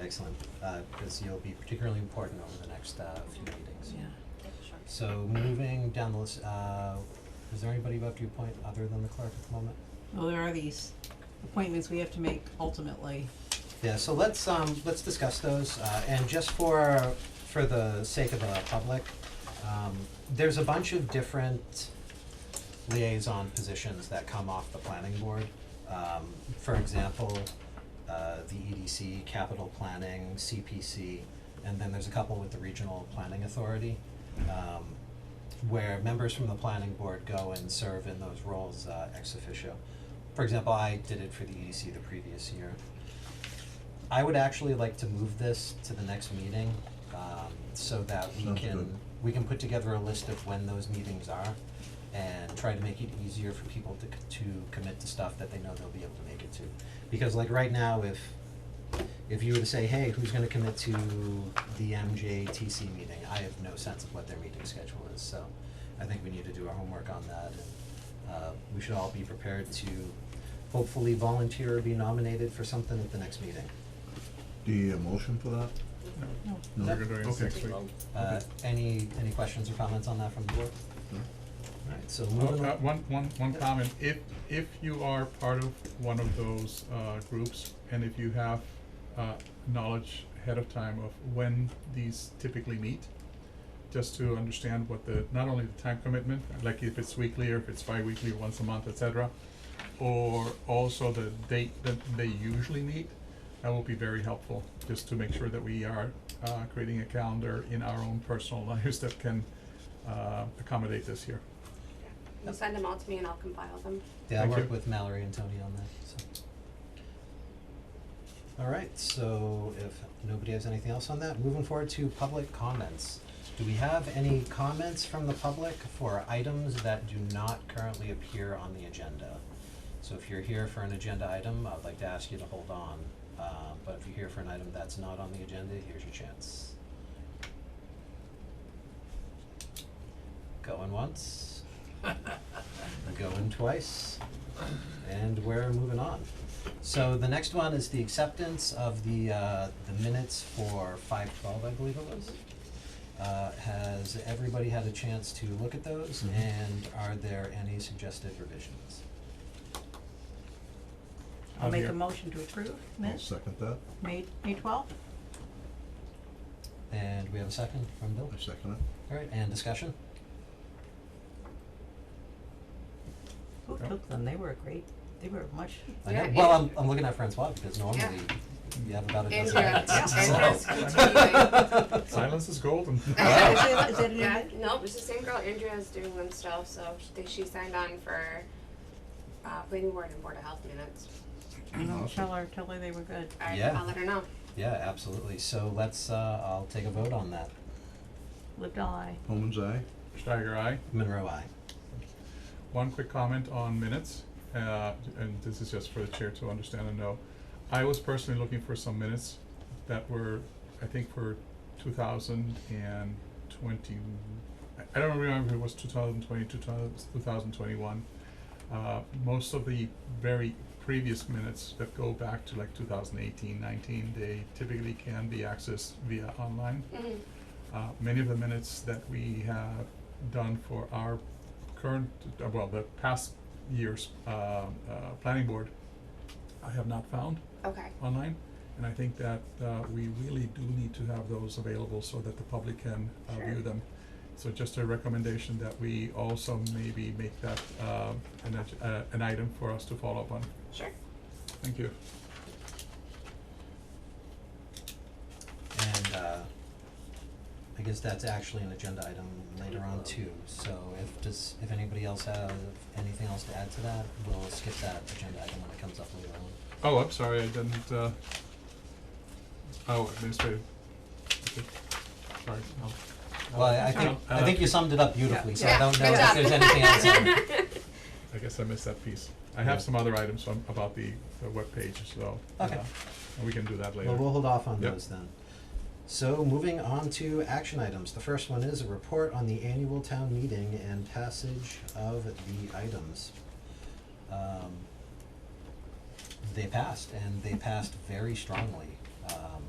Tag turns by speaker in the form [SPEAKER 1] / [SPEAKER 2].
[SPEAKER 1] excellent, because you'll be particularly important over the next uh, few meetings.
[SPEAKER 2] Yeah.
[SPEAKER 3] Sure.
[SPEAKER 1] So moving down the list, uh, is there anybody you have to appoint other than the clerk at the moment?
[SPEAKER 2] Well, there are these appointments we have to make ultimately.
[SPEAKER 1] Yeah, so let's, um, let's discuss those, uh, and just for, for the sake of the public, um, there's a bunch of different liaison positions that come off the planning board. Um, for example, uh, the EDC, capital planning, CPC, and then there's a couple with the regional planning authority. Um, where members from the planning board go and serve in those roles, uh, ex officio. For example, I did it for the EDC the previous year. I would actually like to move this to the next meeting, um, so that we
[SPEAKER 4] Sounds
[SPEAKER 1] can,
[SPEAKER 4] good.
[SPEAKER 1] we can put together a list of when those meetings are and try to make it easier for people to, c- to commit to stuff that they know they'll be able to make it to. Because like right now, if, if you were to say, hey, who's gonna commit to the MJTC meeting, I have no sense of what their meeting schedule is, so I think we need to do our homework on that and, uh, we should all be prepared to hopefully volunteer or be nominated for something at the next meeting.
[SPEAKER 4] Do you need a uh, motion for that?
[SPEAKER 2] No.
[SPEAKER 4] No?
[SPEAKER 1] We're
[SPEAKER 5] gonna do it
[SPEAKER 4] Okay.
[SPEAKER 5] next week.
[SPEAKER 1] Uh, any, any questions or comments on that from the board?
[SPEAKER 4] No?
[SPEAKER 1] Alright, so
[SPEAKER 5] Uh,
[SPEAKER 1] moving
[SPEAKER 5] uh,
[SPEAKER 1] on.
[SPEAKER 5] One, one, one
[SPEAKER 1] Yeah.
[SPEAKER 5] comment, if, if you are part of one of those, uh, groups, and if you have, uh, knowledge ahead of time of when these typically meet, just to understand what the, not only the time commitment, like if it's weekly, or if it's bi-weekly, or once a month, et cetera, or also the date that they usually meet, that will be very helpful, just to make sure that we are, uh, creating a calendar in our own personal lives that can, uh, accommodate this here.
[SPEAKER 3] You send them all to me and I'll compile them.
[SPEAKER 1] Yeah, I
[SPEAKER 5] Thank
[SPEAKER 1] worked
[SPEAKER 5] you.
[SPEAKER 1] with Mallory and Tony on that, so. Alright, so if nobody has anything else on that, moving forward to public comments. Do we have any comments from the public for items that do not currently appear on the agenda? So if you're here for an agenda item, I'd like to ask you to hold on, uh, but if you're here for an item that's not on the agenda, here's your chance. Going once. Going twice. And we're moving on. So the next one is the acceptance of the, uh, the minutes for five twelve, I believe it was. Uh, has everybody had a chance to look at those
[SPEAKER 4] Mhm.
[SPEAKER 1] and are there any suggested revisions?
[SPEAKER 2] I'll
[SPEAKER 5] I'm
[SPEAKER 2] make a
[SPEAKER 5] here.
[SPEAKER 2] motion to approve
[SPEAKER 4] I'll
[SPEAKER 2] minutes,
[SPEAKER 4] second that.
[SPEAKER 2] May, May twelfth.
[SPEAKER 1] And we have a second from Bill.
[SPEAKER 4] I second it.
[SPEAKER 1] Alright, and discussion?
[SPEAKER 2] Who
[SPEAKER 5] Yeah.
[SPEAKER 2] took them? They were great. They were much,
[SPEAKER 1] I know-
[SPEAKER 3] Yeah,
[SPEAKER 1] Well, I'm,
[SPEAKER 3] and-
[SPEAKER 1] I'm looking at Francois because
[SPEAKER 3] Yeah.
[SPEAKER 1] normally you have about a
[SPEAKER 3] And
[SPEAKER 1] dozen
[SPEAKER 3] you're-
[SPEAKER 1] minutes,
[SPEAKER 3] yeah, and
[SPEAKER 1] so-
[SPEAKER 3] you're continuing.
[SPEAKER 5] Silence is golden.
[SPEAKER 2] Wow. Is it- is it an
[SPEAKER 3] Yeah,
[SPEAKER 2] event?
[SPEAKER 3] no, it's the same girl, Andrea's doing them still, so she, they- she signed on for, uh, planning board and board of health minutes.
[SPEAKER 2] you know,
[SPEAKER 4] Awesome.
[SPEAKER 2] tell her, tell her they were good.
[SPEAKER 3] I,
[SPEAKER 1] Yeah.
[SPEAKER 3] I'll let her know.
[SPEAKER 1] Yeah, absolutely. So let's, uh, I'll take a vote on that.
[SPEAKER 2] Lived all I.
[SPEAKER 4] Holman's eye?
[SPEAKER 5] Steiger, aye.
[SPEAKER 1] Monroe, aye.
[SPEAKER 5] One quick comment on minutes, uh, and this is just for the chair to understand and know. I was personally looking for some minutes that were, I think, for two thousand and twenty, I- I don't remember if it was 2020, 2000 2021. Uh, most of the very previous minutes that go back to like 2018, 19, they typically can be accessed via online.
[SPEAKER 2] Mm-hmm.
[SPEAKER 3] Mhm.
[SPEAKER 5] Uh, many of the minutes that we have done for our current, uh, well, the past year's, um, uh, planning board, I have not found
[SPEAKER 3] Okay,
[SPEAKER 5] online. And I think that, uh, we really do need to have those available so that the public can, uh, view
[SPEAKER 3] Sure.
[SPEAKER 5] them. So just a recommendation that we also maybe make that, um, an, ag- uh, an item for us to follow up on.
[SPEAKER 3] sure.
[SPEAKER 5] Thank you.
[SPEAKER 1] And, uh, I guess that's actually an agenda item later on too. So if, does, if anybody else have anything else to add to that, we'll skip that agenda item when it comes up later on.
[SPEAKER 5] Oh, I'm sorry, I didn't, uh, oh, administrative. Okay. Sorry, I'll. I'll-
[SPEAKER 1] Well, I I think,
[SPEAKER 5] I'll-
[SPEAKER 1] I think you summed it up beautifully, so I
[SPEAKER 3] Yeah,
[SPEAKER 1] don't know
[SPEAKER 3] good
[SPEAKER 1] if there's
[SPEAKER 3] job.
[SPEAKER 1] anything else on it.
[SPEAKER 5] I guess I missed that piece. I
[SPEAKER 1] Yeah.
[SPEAKER 5] have some other items on, about the, the webpage, so. uh,
[SPEAKER 1] Okay.
[SPEAKER 5] We can do that later.
[SPEAKER 1] Well, we'll hold off on
[SPEAKER 5] Yep.
[SPEAKER 1] those then. So moving on to action items. The first one is a report on the annual town meeting and passage of the items. Um, They passed, and they passed very strongly. Um,